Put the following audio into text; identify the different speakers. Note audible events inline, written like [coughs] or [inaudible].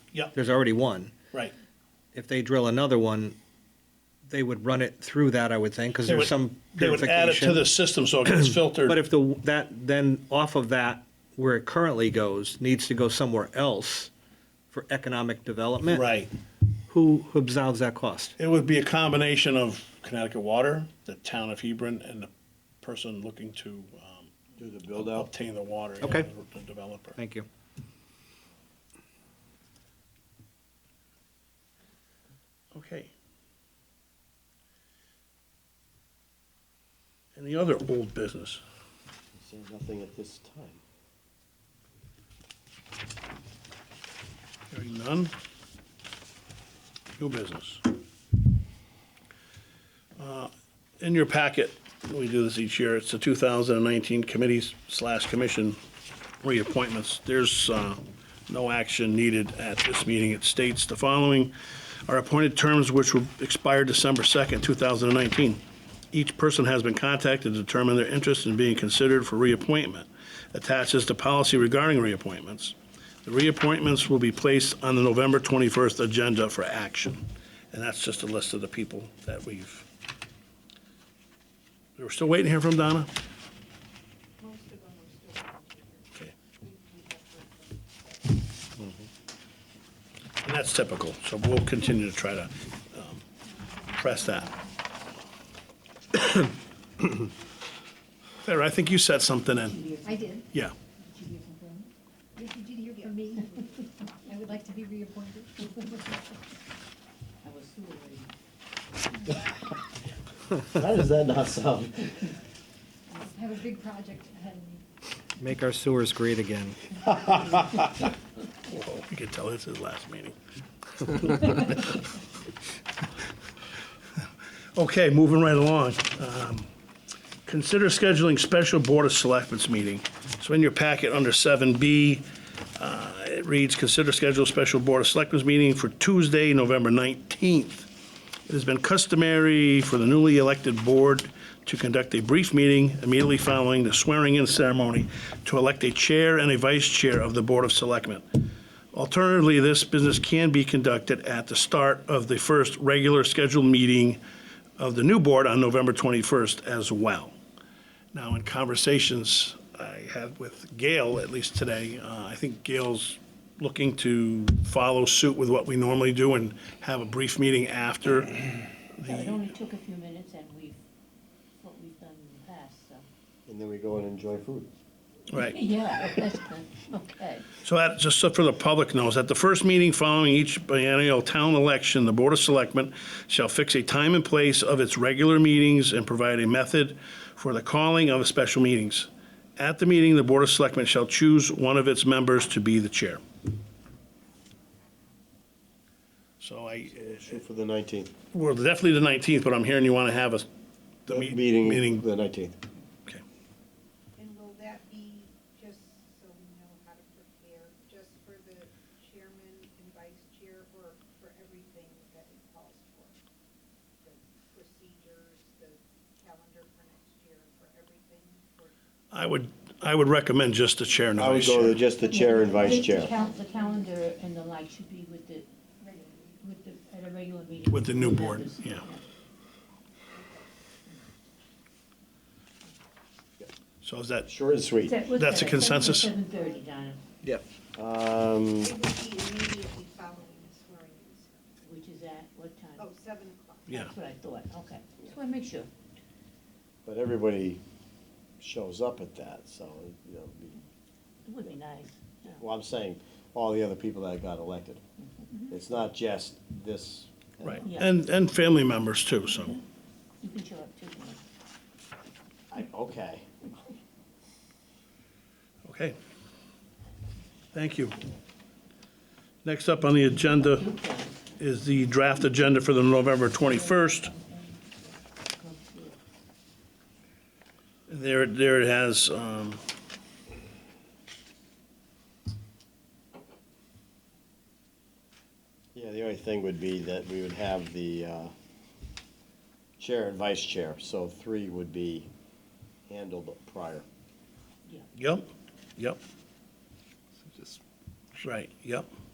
Speaker 1: Yep.
Speaker 2: There's already one.
Speaker 1: Right.
Speaker 2: If they drill another one, they would run it through that, I would think, because
Speaker 1: They
Speaker 2: there's
Speaker 1: would-
Speaker 2: some
Speaker 1: They would add it to
Speaker 2: purification.
Speaker 1: the system so it gets
Speaker 2: [clears throat]
Speaker 1: filtered.
Speaker 2: But if the, that, then off of that, where it currently goes, needs to go somewhere else for economic development.
Speaker 1: Right.
Speaker 2: Who absolves that cost?
Speaker 1: It would be a combination of Connecticut Water, the town of Hebron, and the person looking to um,
Speaker 3: Do the build out.
Speaker 1: obtain the water. yeah,
Speaker 2: Okay.
Speaker 1: The developer.
Speaker 2: Thank you.
Speaker 1: Okay. Any other old business?
Speaker 3: Say nothing at this time.
Speaker 1: Hearing none. New business. Uh, In your packet, we do this each year, it's the 2019 committees slash commission reappointments. There's uh, no action needed at this meeting. It states the following are appointed terms which will expire December 2nd, 2019. Each person has been contacted to determine their interest in being considered for reappointment. Attached is the policy regarding reappointments. The reappointments will be placed on the November 21st agenda for action. And that's just a list of the people that we've, we're still waiting to hear from Donna? Okay. Mm-hmm. And that's typical, so we'll continue to try to um, press that. [coughs] Farah, I think you said something in,
Speaker 4: I did.
Speaker 1: yeah.
Speaker 4: Did you hear from them? Yes, you did hear from me. I would like to be reappointed. I was too worried.
Speaker 3: How does that not sound?
Speaker 4: I have a big project ahead of me.
Speaker 2: Make our sewers great again.
Speaker 1: Whoa, You could tell it's his last meeting. [laughs] Okay, moving right along. Um, Consider scheduling special Board of Selectments meeting. So in your packet, under 7B, uh, it reads, "Consider schedule special Board of Selectments meeting for Tuesday, November 19th. It has been customary for the newly elected board to conduct a brief meeting immediately following the swearing-in ceremony to elect a chair and a vice chair of the Board of Selectmen. Alternatively, this business can be conducted at the start of the first regular scheduled meeting of the new board on November 21st as well. Now, in conversations I had with Gail, at least today, uh, I think Gail's looking to follow suit with what we normally do and have a brief meeting after.
Speaker 5: So it only took a few minutes and we've, what we've done in the past, so.
Speaker 3: And then we go and enjoy food.
Speaker 1: Right.
Speaker 5: Yeah, [laughs] that's good, okay.
Speaker 1: So that, just so for the public knows, at the first meeting following each biennial town election, the Board of Selectmen shall fix a time and place of its regular meetings and provide a method for the calling of special meetings. At the meeting, the Board of Selectmen shall choose one of its members to be the chair. So I,
Speaker 3: Shoot for the 19th.
Speaker 1: well, definitely the 19th, but I'm hearing you want to have a, the me-
Speaker 3: Meeting,
Speaker 1: meeting.
Speaker 3: the 19th.
Speaker 1: Okay.
Speaker 6: And will that be, just so we know how to prepare, just for the chairman and vice chair or for everything that it calls for? The procedures, the calendar for next year, for everything, for
Speaker 1: I would, I would recommend just the chair and the
Speaker 3: I would
Speaker 1: vice
Speaker 3: go
Speaker 1: chair.
Speaker 3: with just the chair and
Speaker 5: The-
Speaker 3: vice
Speaker 5: the
Speaker 3: chair.
Speaker 5: cal- The calendar and the like should be with the, with the, at a regular meeting.
Speaker 1: With the new board,
Speaker 5: members.
Speaker 1: yeah. So is that,
Speaker 3: Short and sweet.
Speaker 5: That- what's
Speaker 1: That's a
Speaker 5: that?
Speaker 1: consensus?
Speaker 5: Seven thirty, Donna,
Speaker 3: Um,
Speaker 6: it would be immediately following the swearing in.
Speaker 5: which is at what time?
Speaker 6: Oh, seven o'clock.
Speaker 1: yeah.
Speaker 5: That's what I thought, okay. Just wanna make sure.
Speaker 3: but everybody shows up at that, so, you know, be-
Speaker 5: It would be nice. yeah.
Speaker 3: well, I'm saying all the other people that got elected. It's not just this.
Speaker 1: Right,
Speaker 5: Yeah.
Speaker 1: and, and family members too, so,
Speaker 5: You can show up too. Donna.
Speaker 3: I, okay.
Speaker 1: okay. Thank you. Next up on the agenda is the draft agenda for the November 21st. There, there it has, um,
Speaker 3: Yeah, the only thing would be that we would have the uh, chair and vice chair, so three would be handled prior.
Speaker 1: yep, yep,
Speaker 7: Just
Speaker 1: right, yep.